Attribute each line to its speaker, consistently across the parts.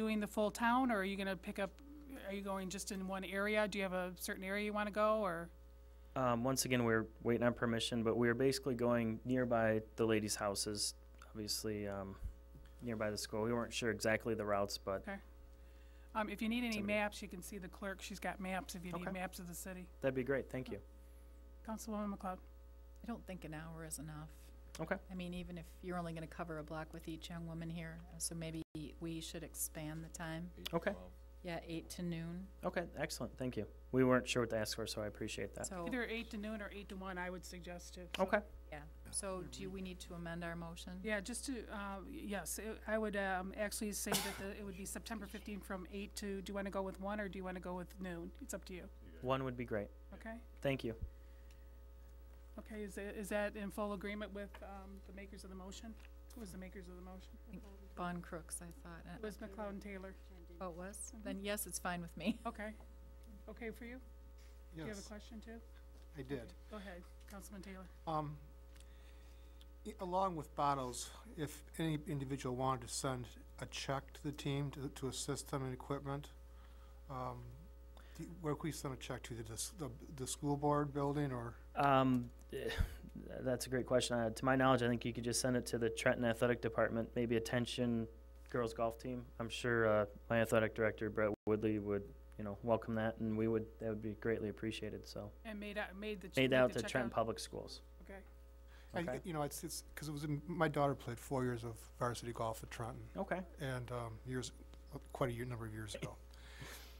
Speaker 1: doing the full town, or are you gonna pick up, are you going just in one area? Do you have a certain area you wanna go, or?
Speaker 2: Um, once again, we're waiting on permission, but we're basically going nearby the ladies' houses, obviously, um, nearby the school. We weren't sure exactly the routes, but
Speaker 1: Um, if you need any
Speaker 2: Somebody-
Speaker 1: maps, you can see the clerk, she's got maps if you
Speaker 2: Okay.
Speaker 1: need maps of the city.
Speaker 2: that'd be great. Thank you.
Speaker 1: Councilwoman McLeod,
Speaker 3: I don't think an hour is enough.
Speaker 2: Okay.
Speaker 3: I mean, even if you're only gonna cover a block with each young woman here, so maybe we should expand the time.
Speaker 2: Okay.
Speaker 3: Yeah, eight to noon,
Speaker 2: Okay, excellent. Thank you. We weren't sure what to ask for, so I appreciate that.
Speaker 3: so,
Speaker 1: either eight to noon or eight to one, I would suggest it.
Speaker 2: Okay.
Speaker 3: yeah. So do we need to amend our motion?
Speaker 1: Yeah, just to, uh, yes, it- I would, um, actually say that the, it would be September fifteenth from eight to, do you wanna go with one, or do you wanna go with noon? It's up to you,
Speaker 2: One would be great.
Speaker 1: okay?
Speaker 2: Thank you.
Speaker 1: Okay, is, that- is that in full agreement with, um, the makers of the motion? Who was the makers of the motion?
Speaker 3: Bond Crooks, I thought.
Speaker 1: It
Speaker 3: uh,
Speaker 1: was McLeod and Taylor,
Speaker 3: Oh, it was?
Speaker 1: Mm-hmm.
Speaker 3: Then yes, it's fine with me.
Speaker 1: okay. Okay for you? Do you have a
Speaker 4: Yes,
Speaker 1: question too?
Speaker 4: I did.
Speaker 1: Go ahead, Councilman Taylor.
Speaker 4: Um, i- Along with bottles, if any individual wanted to send a check to the team to, to assist them in equipment, um, do- where could we send a check to? The, dis- the, the school board building or?
Speaker 2: Um, eh, that's a great question. Uh, to my knowledge, I think you could just send it to the Trenton Athletic Department, maybe attention girls golf team. I'm sure uh, my athletic director Brett Woodley would, you know, welcome that, and we would that would be greately appreciated. So
Speaker 1: And made out, made the. ch-
Speaker 2: made
Speaker 1: made
Speaker 2: out
Speaker 1: the
Speaker 2: to
Speaker 1: check
Speaker 2: Trenton Public Schools.
Speaker 1: Okay,
Speaker 4: I-
Speaker 2: Okay.
Speaker 4: You know, it's, it's, because it was, in- my daughter played four years of varsity golf at Trenton.
Speaker 2: Okay.
Speaker 4: and um, years, quite a year, number of years ago.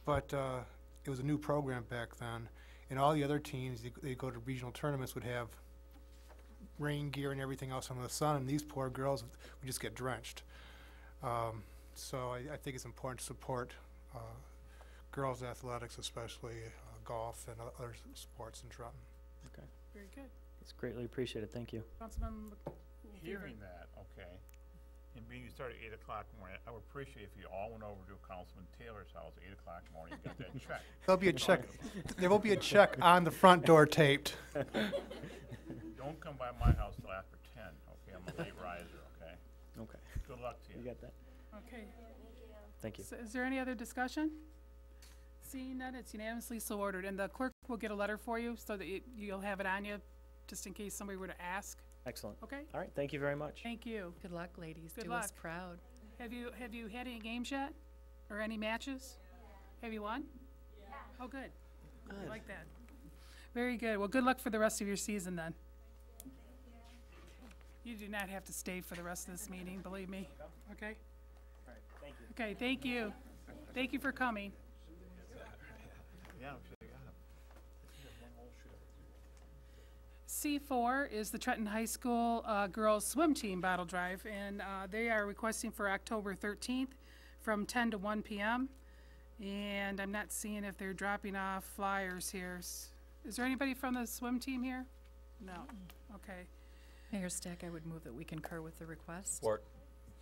Speaker 4: But uh, it was a new program back then, and all the other teams, they, they go to regional tournaments, would have rain gear and everything else under the sun, and these poor girls would would just get drenched. Um, so I, I think it's important to support uh, girls' athletics, especially uh, golf and o- other s- sports in Trenton.
Speaker 1: very good.
Speaker 2: It's greatly appreciated. Thank you.
Speaker 1: Councilman. Mc- who-
Speaker 5: Hearing that, okay, and being you start at eight o'clock in the morning, I would appreciate if you all went over to Councilman Taylor's house at eight o'clock in the morning, and got that check.
Speaker 4: There'll be a check. There will be a check on the front door taped.
Speaker 5: Don't come by my house till after ten, okay? I'm a late riser, okay?
Speaker 2: Okay.
Speaker 5: Good luck to
Speaker 2: You
Speaker 5: you.
Speaker 2: got that.
Speaker 1: Okay,
Speaker 2: Thank you.
Speaker 1: so is there any other discussion? Seeing none, it's unanimously so ordered, and the clerk will get a letter for you so that you- you'll have it on you, just in case somebody were to ask,
Speaker 2: Excellent.
Speaker 1: okay?
Speaker 2: All right. Thank you very much.
Speaker 1: Thank you.
Speaker 3: Good luck, ladies.
Speaker 1: Good
Speaker 3: Do us
Speaker 1: luck.
Speaker 3: proud.
Speaker 1: Have you, have you had any games yet? Or any matches? Have you won? Oh, good. I like that. Very good. Well, good luck for the rest of your season then. You do not have to stay for the rest of this meeting, believe me, okay? Okay, thank you. Thank you for coming.
Speaker 5: Yeah, I'm sure you got 'em.
Speaker 1: C4 is the Trenton High School uh, Girls Swim Team Battle Drive, and uh, they are requesting for October 13th from 10 to 1 p.m. And I'm not seeing if they're dropping off flyers here. S- Is there anybody from the swim team here? No. Okay.
Speaker 3: Mayor Stack, I would move that we concur with the request.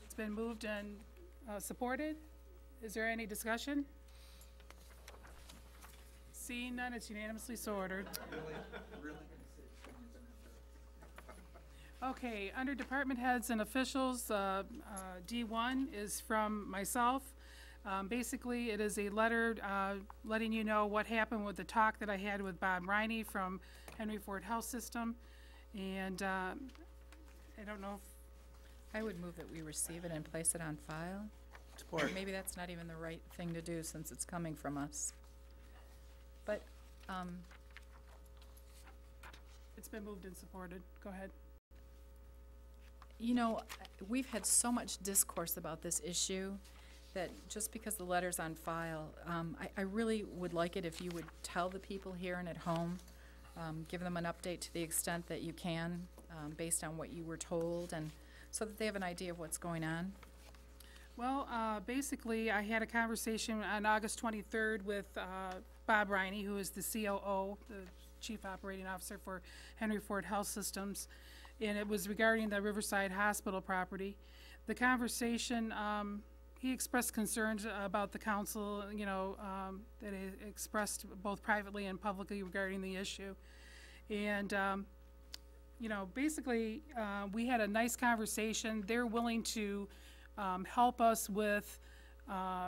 Speaker 1: It's been moved and uh, supported. Is there any discussion? Seeing none, it's unanimously so ordered. Okay, under department heads and officials, uh, uh, D1 is from myself. Um, Basically, it is a letter uh, letting you know what happened with the talk that I had with Bob Riney from Henry Ford Health System. And uh, I don't know if
Speaker 3: I would move that we receive it and place it on file. Maybe that's not even the right thing to do since it's coming from us. But, um,
Speaker 1: It's been moved and supported. Go ahead.
Speaker 3: you know, we've had so much discourse about this issue that just because the letter's on file, um, I, I really would like it if you would tell the people here and at home, um, give them an update to the extent that you can, um, based on what you were told and so that they have an idea of what's going on.
Speaker 1: Well, uh, basically, I had a conversation on August 23rd with uh, Bob Riney, who is the COO, the Chief Operating Officer for Henry Ford Health Systems, and it was regarding the Riverside Hospital property. The conversation, um, he expressed concerns about the council, you know, um, that he expressed both privately and publicly regarding the issue. And um, you know, basically, uh, we had a nice conversation. They're willing to um, help us with uh,